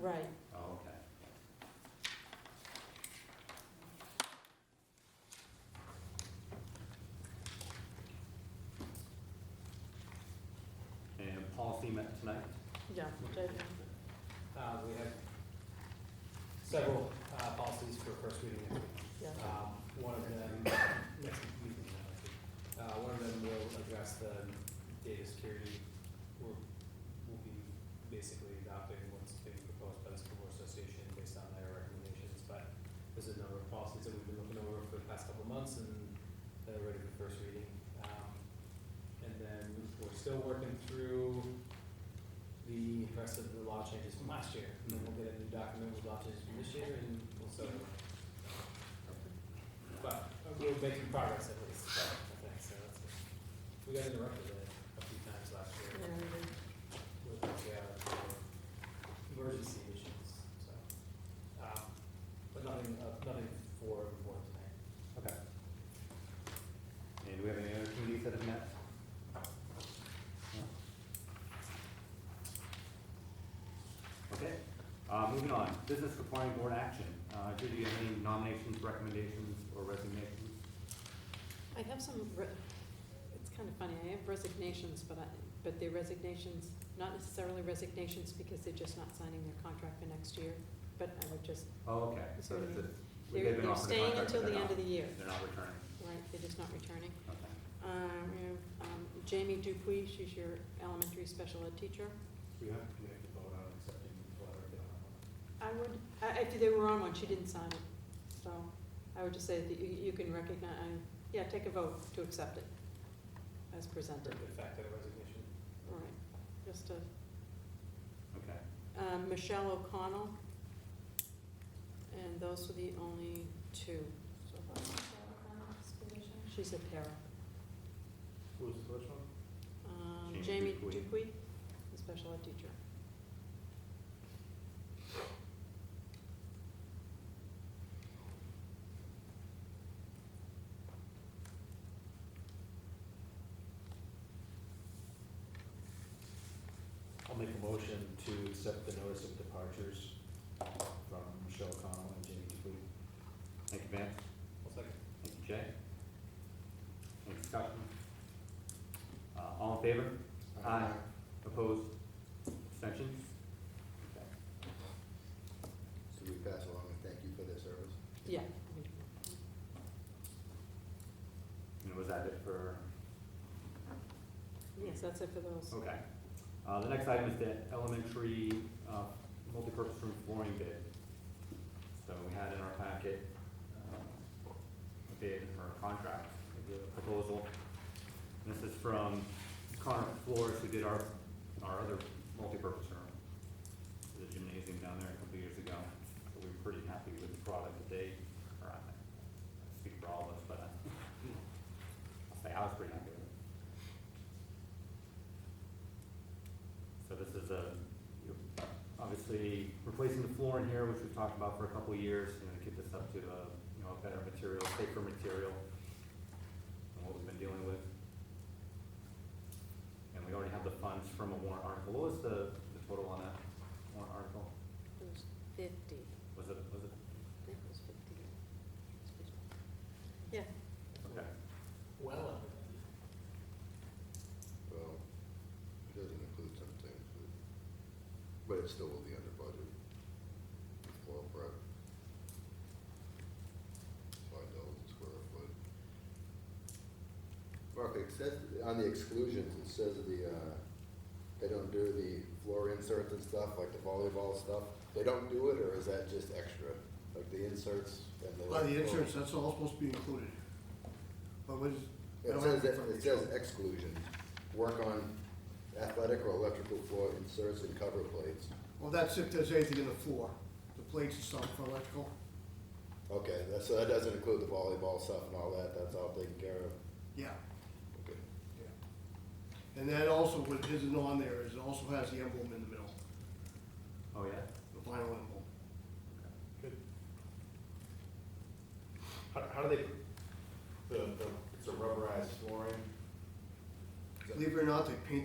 Right, Oh, okay. And policy met tonight? yeah, that- Uh, We have several uh, policies for first reading. this week. yeah, Um, One of them, next week, not next week. Uh, one of them will address the data security. We'll, we'll be basically adopting what's being proposed by the School Board Association based on their recommendations. But there's a number of policies that we've been looking over for the past couple of months and that are ready for first reading. Um, And then we're still working through the rest of the law changes from last year. And then we'll get a new document with law changes from this year and we'll start. But we're making progress at least, I think, so that's good. We got interrupted a- a few times last year yeah, we did. with the, uh, emergency issues, so. um, But nothing, uh, nothing for the board tonight. Okay. And do we have any other committees that have met? No? Okay, uh, moving on, business requiring board action. Uh, Judy, do you have any nominations, recommendations, or resignations? I have some, re- it's kind of funny, I have resignations, but I, but they're resignations, not necessarily resignations because they're just not signing their contract for next year, but I would just, Oh, okay, Is so there that's any- it. They're- they're staying until the end of the year. They're not returning, right, they're just not returning. okay. Um, we have, um, Jamie Dupuy, she's your elementary special ed teacher. We have, we have to vote on accepting the letter. I would, I, I, they were on one, she didn't sign it, so I would just say that you, you can recognize, uh, yeah, take a vote to accept it as presented. The fact that a resignation. All right, just a, Okay, um, Michelle O'Connell. And those were the only two so far. She's a para. Who's the first one? Um, Jamie Jamie Dupuy. Dupuy, the special ed teacher. I'll make a motion to accept the notice of departures from Michelle Connell and Jamie Dupuy. thank you, Vance, One second. thank you, Jay. Any discussion? Uh, All in favor? Aye. Opposed? Abstentions? Okay. So we pass along and thank you for their service. Yeah. And was that it for, Yes, that's it for those. okay. Uh, The next item is the elementary uh, multipurpose room flooring bid. So we had in our packet um, a bid or a contract, maybe a proposal. And This is from Connor Flores, who did our, our other multipurpose room, the gymnasium down there a couple years ago. So we were pretty happy with the product that they, or I I speak for all of us, but I- I'll say I was pretty happy with it. So this is a, you know, obviously replacing the floor in here, which we've talked about for a couple of years, you know, to get this up to a, you know, a better material, safer material than what we've been dealing with. And we already have the funds from a warrant article. What was the, the total on that warrant article? It was fifty. Was it, was it? I think it was fifty. It's 50. Yeah, Okay. Well, under- Well, it doesn't include some things, but, but it still will be under budget. Well, Brett. Five dollars a square foot. Mark, it says, on the exclusions, it says that the, uh, they don't do the floor inserts and stuff, like the volleyball stuff. They don't do it, or is that just extra? Like the inserts and the. By the insurance, that's all supposed to be included. But what is? I It don't says, have that- it says exclusions, work on athletic or electrical floor inserts and cover plates. Well, that's if there's anything in the floor, the plates or something for electrical. Okay, that- so that doesn't include the volleyball stuff and all that, that's all taken care of? Yeah, Okay. yeah. And that also, what isn't on there is it also has the emblem in the middle, Oh, yeah? the vinyl emblem. Good. How, how do they, the, the, it's a rubberized flooring? Believe it or not, they paint